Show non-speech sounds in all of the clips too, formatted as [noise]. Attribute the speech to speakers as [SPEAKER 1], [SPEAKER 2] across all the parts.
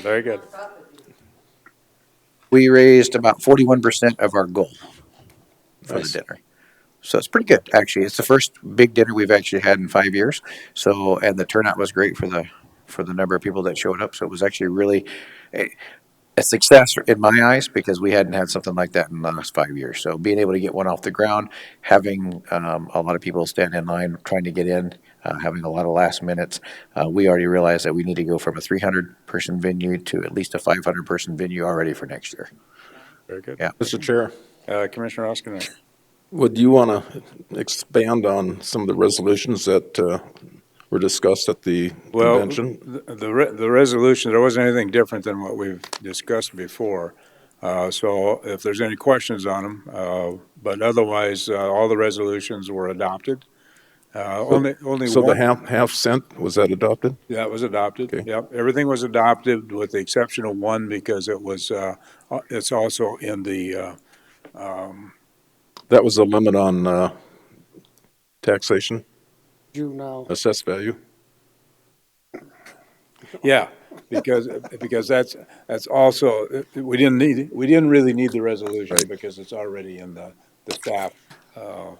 [SPEAKER 1] Very good.
[SPEAKER 2] we raised about 41% of our goal for
[SPEAKER 1] Nice.
[SPEAKER 2] the dinner. So it's pretty good, actually. It's the first big dinner we've actually had in five years. So, and the turnout was great for the for the number of people that showed up. So it was actually really a, a success in my eyes because we hadn't had something like that in the last five years. So being able to get one off the ground, having um, a lot of people stand in line trying to get in, uh, having a lot of last minutes, uh, we already realized that we need to go from a 300 person venue to at least a 500 person venue already for next year.
[SPEAKER 1] Very good.
[SPEAKER 2] Yeah.
[SPEAKER 3] Mr. Chair,
[SPEAKER 1] Uh, Commissioner Oskinen.
[SPEAKER 3] would you want to expand on some of the resolutions that uh, were discussed at the
[SPEAKER 1] Well,
[SPEAKER 3] convention?
[SPEAKER 1] th- the, re- the resolution, there wasn't anything different than what we've discussed before. Uh, so if there's any questions on them, uh, but otherwise, uh, all the resolutions were adopted. Uh, only, only
[SPEAKER 3] So the
[SPEAKER 1] one,
[SPEAKER 3] half, half cent, was that adopted?
[SPEAKER 1] that was adopted.
[SPEAKER 3] Okay.
[SPEAKER 1] Yep. Everything was adopted with the exception of one because it was, uh, uh, it's also in the, uh,
[SPEAKER 3] That was the limit on uh, taxation,
[SPEAKER 4] juvenile.
[SPEAKER 1] Uh,
[SPEAKER 3] assessed value?
[SPEAKER 1] Yeah, because, because that's, that's also, we didn't need, we didn't really need the resolution
[SPEAKER 3] Right.
[SPEAKER 1] because it's already in the, the staff uh,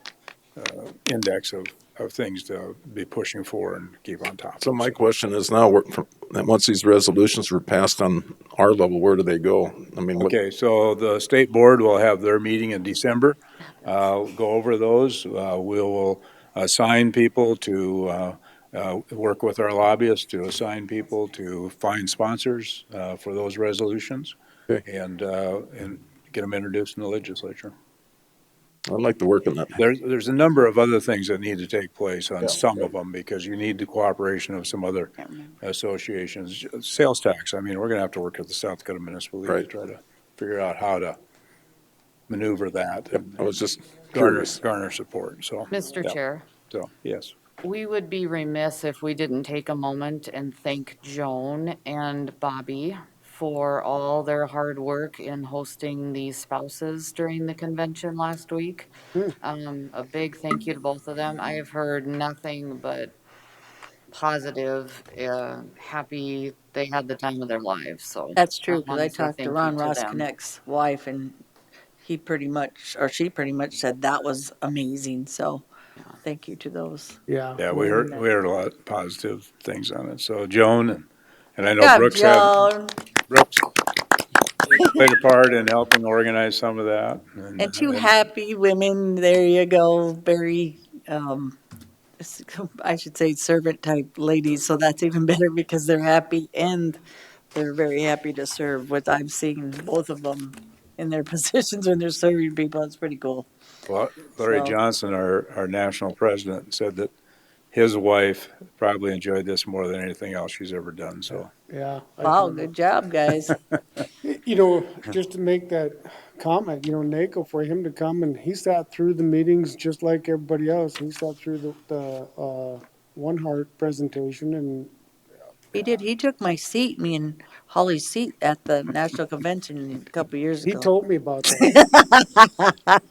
[SPEAKER 1] uh, index of, of things to be pushing for and keep on top.
[SPEAKER 3] So my question is now, we're- from- that once these resolutions were passed on our level, where do they go? I mean, what-
[SPEAKER 1] Okay, so the state board will have their meeting in December. Uh, Go over those. Uh, We will assign people to, uh, uh, work with our lobbyists to assign people to find sponsors uh, for those resolutions
[SPEAKER 3] Okay.
[SPEAKER 1] and, uh, and get them introduced in the legislature.
[SPEAKER 3] I'd like to work on that.
[SPEAKER 1] There's, there's a number of other things that need to take place on
[SPEAKER 3] Yeah.
[SPEAKER 1] some of them because you need the cooperation of some other associations. Sales tax, I mean, we're gonna have to work with the South Dakota Municipal League to
[SPEAKER 3] Right.
[SPEAKER 1] try to figure out how to maneuver that. and
[SPEAKER 3] I was just
[SPEAKER 1] Garner,
[SPEAKER 3] curious.
[SPEAKER 1] garner support, so.
[SPEAKER 5] Mr.
[SPEAKER 1] yeah,
[SPEAKER 5] Chair,
[SPEAKER 1] So, yes,
[SPEAKER 5] we would be remiss if we didn't take a moment and thank Joan and Bobby for all their hard work in hosting the spouses during the convention last week. Um, a big thank you to both of them. I have heard nothing but positive, uh, happy, they had the time of their lives, so.
[SPEAKER 6] That's true, because
[SPEAKER 5] wanna
[SPEAKER 6] I
[SPEAKER 5] say thank
[SPEAKER 6] talked to
[SPEAKER 5] you
[SPEAKER 6] Ron Ross
[SPEAKER 5] them.
[SPEAKER 6] Connect's wife, and he pretty much, or she pretty much said that was amazing, so thank you to those.
[SPEAKER 4] Yeah.
[SPEAKER 1] yeah, we heard, we heard a lot of positive things on it. So Joan, and and I know
[SPEAKER 6] Yeah,
[SPEAKER 1] Brooks had,
[SPEAKER 6] Joan,
[SPEAKER 1] Brooks played a part in helping organize some of that.
[SPEAKER 6] And two happy women, there you go, very, um, s- [laughs] I should say servant type ladies, so that's even better because they're happy and they're very happy to serve, what I've seen, both of them in their [laughs] positions when they're serving people, it's pretty cool.
[SPEAKER 1] Well, Larry
[SPEAKER 6] So-
[SPEAKER 1] Johnson, our, our national president, said that his wife probably enjoyed this more than anything else she's ever done, so.
[SPEAKER 4] Yeah. I
[SPEAKER 6] Wow,
[SPEAKER 4] agree.
[SPEAKER 6] good job, guys.
[SPEAKER 4] You know, just to make that comment, you know, NACO, for him to come and he sat through the meetings just like everybody else. He sat through the, the, uh, One Heart presentation and
[SPEAKER 6] He did. He took my seat, me and Holly's seat at the national convention a couple years
[SPEAKER 4] he
[SPEAKER 6] ago.
[SPEAKER 4] told me about that.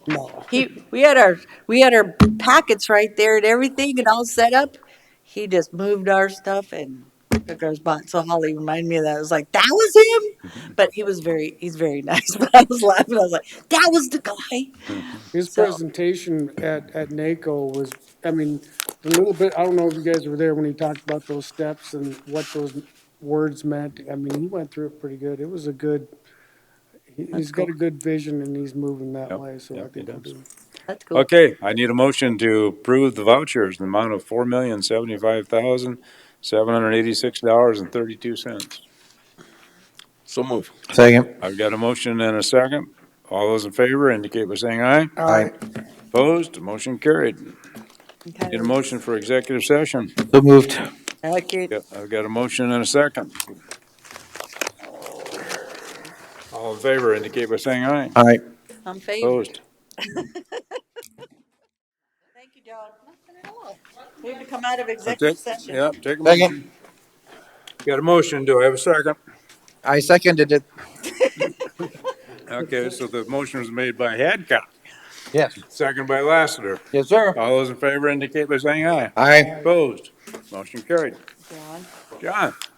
[SPEAKER 4] No,
[SPEAKER 6] he we had our we had our packets right there and everything and all set up. He just moved our stuff and took our spot. So Holly reminded me of that. I was like, that was
[SPEAKER 1] Mm-hmm.
[SPEAKER 6] him, but he was very he's very [laughs] nice. But I was laughing. I was like, that was the guy.
[SPEAKER 4] his
[SPEAKER 6] So-
[SPEAKER 4] presentation at, at NACO was, I mean, a little bit, I don't know if you guys were there when he talked about those steps and what those words meant. I mean, he went through it pretty good. It was a good, he- he's got a good vision and he's moving that
[SPEAKER 1] Yep,
[SPEAKER 4] way, so I
[SPEAKER 1] yep, he
[SPEAKER 4] think he'll
[SPEAKER 1] does.
[SPEAKER 4] do. it.
[SPEAKER 6] That's cool.
[SPEAKER 1] Okay, I need a motion to approve the vouchers in the amount of four million, seventy-five thousand, seven hundred eighty-six dollars and thirty-two cents.
[SPEAKER 3] So move.
[SPEAKER 2] Second.
[SPEAKER 1] I've got a motion and a second. All those in favor indicate by saying aye.
[SPEAKER 2] Aye.
[SPEAKER 1] Opposed, motion carried.
[SPEAKER 6] Okay.
[SPEAKER 1] Need a motion for executive session.
[SPEAKER 2] So moved.
[SPEAKER 6] Okay.
[SPEAKER 1] Yep, I've got a motion and a second. All in favor indicate by saying aye.
[SPEAKER 2] Aye.
[SPEAKER 6] I'm favored.
[SPEAKER 1] Opposed.
[SPEAKER 6] Thank you, John. Nothing at all. We have to come out of
[SPEAKER 1] Take-
[SPEAKER 6] executive session.
[SPEAKER 1] Yep, take a motion.
[SPEAKER 2] Second.
[SPEAKER 1] Got a motion, do I have a second?
[SPEAKER 2] I seconded it.
[SPEAKER 1] Okay, so the motion was made by Hadcock,
[SPEAKER 2] Yes.
[SPEAKER 1] second by Lassiter.
[SPEAKER 2] Yes, sir.
[SPEAKER 1] All those in favor indicate by saying aye.
[SPEAKER 2] Aye.
[SPEAKER 1] Opposed, motion carried.
[SPEAKER 5] John?
[SPEAKER 1] John?